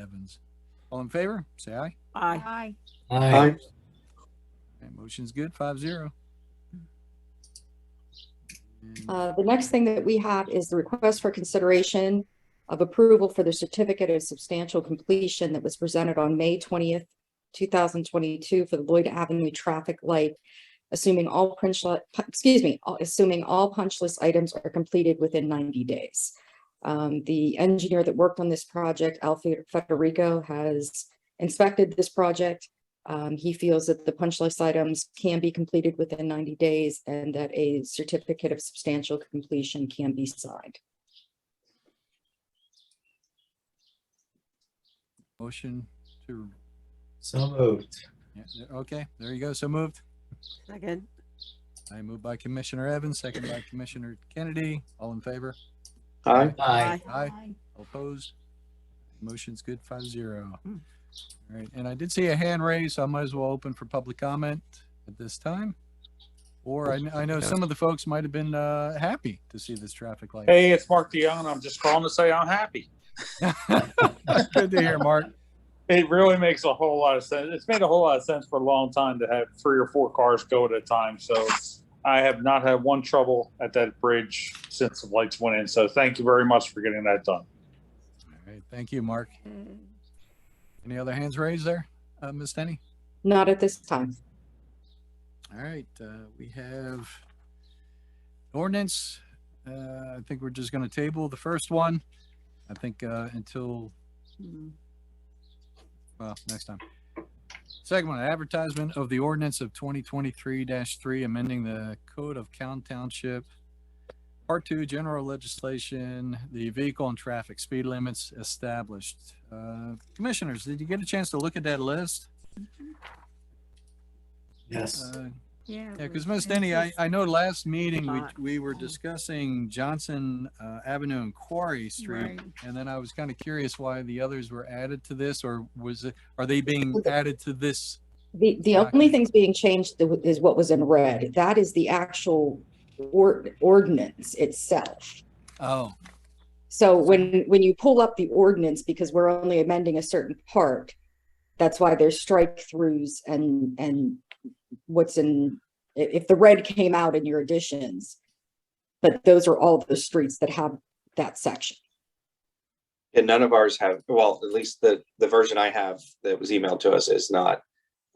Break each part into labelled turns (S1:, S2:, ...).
S1: Evans. All in favor, say aye.
S2: Aye.
S3: Aye.
S4: Aye.
S1: That motion's good, five zero.
S5: Uh, The next thing that we have is the request for consideration of approval for the certificate of substantial completion that was presented on May twentieth, two thousand twenty-two for the Lloyd Avenue traffic light, assuming all punch, li- pu- excuse me, all- assuming all punch list items are completed within ninety days. Um, The engineer that worked on this project, Alfio Federico, has inspected this project. Um, he feels that the punch list items can be completed within ninety days and that a certificate of substantial completion can be signed.
S1: Motion to,
S4: So moved.
S1: yeah, okay, there you go, so moved.
S2: Second.
S1: I move by Commissioner Evans, second by Commissioner Kennedy. All in favor?
S4: Aye.
S2: Aye.
S1: Aye. All Opposed? Motion's good, five zero. All right, and I did see a hand raised, so I might as well open for public comment at this time. Or I, kn- I know some of the folks might have been, uh, happy to see this traffic light.
S6: Hey, it's Mark DeYoung. I'm just calling to say I'm happy.
S1: Good to hear, Mark.
S6: It really makes a whole lot of sense. It's made a whole lot of sense for a long time to have three or four cars go at a time. So I have not had one trouble at that bridge since the lights went in. So thank you very much for getting that done.
S1: All right, thank you, Mark. Any other hands raised there, uh, Ms. Denny?
S5: Not at this time.
S1: All right, uh, we have ordinance. Uh, I think we're just gonna table the first one. I think, uh, until,
S2: Mm.
S1: well, next time. Second one, advertisement of the ordinance of twenty twenty-three three, amending the code of Count Township. Part two, general legislation, the vehicle and traffic speed limits established. Uh, commissioners, did you get a chance to look at that list?
S4: Yes.
S1: Uh,
S3: Yeah.
S1: Yeah, because Ms. Denny, I, I know last meeting, we,
S2: Thought.
S1: we were discussing Johnson uh, Avenue and Quarry Street.
S3: Right.
S1: And then I was kind of curious why the others were added to this, or was it, are they being added to this?
S5: The, the
S1: Right.
S5: only things being changed tho- is what was in red. That is the actual or, ordinance itself.
S1: Oh,
S5: So when, when you pull up the ordinance, because we're only amending a certain part, that's why there's strike throughs and, and what's in, i- if the red came out in your additions. But those are all the streets that have that section.
S7: And none of ours have, well, at least the, the version I have that was emailed to us is not,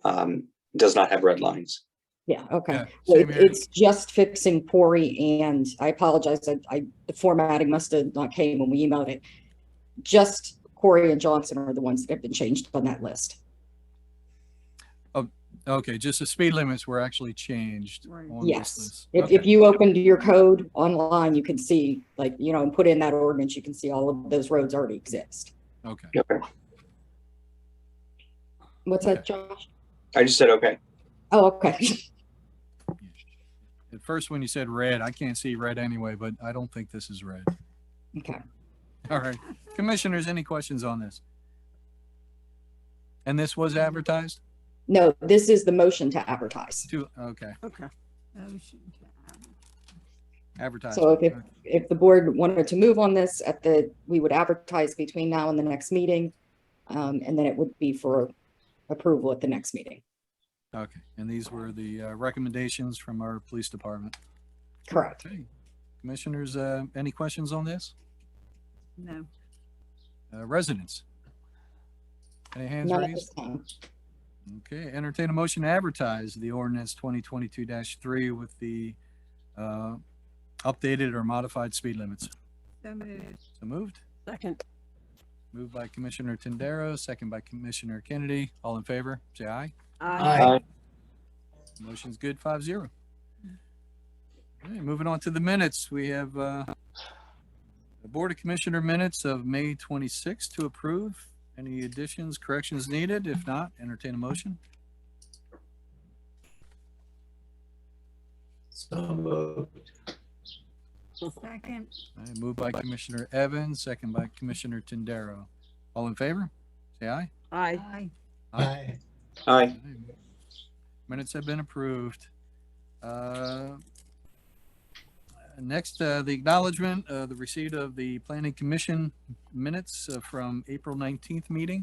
S7: um, does not have red lines.
S5: Yeah, okay.
S1: yeah,
S5: Well,
S1: same
S5: it-
S1: here.
S5: It's just fixing Pori and I apologize, I, I, the formatting must have not came when we emailed it. Just Corey and Johnson are the ones that have been changed on that list.
S1: Okay, just the speed limits were actually changed.
S2: Right.
S1: on this
S5: Yes.
S1: list.
S5: If,
S1: Okay.
S5: if you opened your code online, you can see, like, you know, and put in that ordinance, you can see all of those roads already exist.
S1: Okay,
S7: Okay.
S5: What's that, Josh?
S7: I just said, okay.
S5: Oh, okay.
S1: at first when you said red, I can't see red anyway, but I don't think this is red.
S5: Okay.
S1: All right, commissioners, any questions on this? And this was advertised
S5: No, this is the motion to advertise.
S1: too? Okay,
S2: Okay.
S3: Motion to add.
S1: advertised.
S5: So if, if, if the board wanted to move on this at the, we would advertise between now and the next meeting. Um, and then it would be for approval at the next meeting.
S1: Okay, and these were the uh, recommendations from our police department.
S5: Correct.
S1: Okay. Commissioners, uh, any questions on this?
S3: No.
S1: Uh, Residents? Any hands
S5: None at
S1: raised?
S5: this time.
S1: Okay, entertain a motion to advertise the ordinance twenty twenty-two three with the uh, updated or modified speed limits.
S3: So moved.
S1: So moved,
S2: Second.
S1: moved by Commissioner Tendero, second by Commissioner Kennedy. All in favor, say aye.
S2: Aye.
S1: Motion's good, five zero. All right, moving on to the minutes, we have, uh, the Board of Commissioner minutes of May twenty-sixth to approve. Any additions, corrections needed? If not, entertain a motion.
S4: So moved.
S3: Second.
S1: All right, moved by Commissioner Evans, second by Commissioner Tindaro. All in favor? Say aye.
S2: Aye.
S3: Aye.
S4: Aye.
S7: Aye.
S1: Minutes have been approved. Uh, Next, uh, the acknowledgement, uh, the receipt of the planning commission minutes uh, from April nineteenth meeting.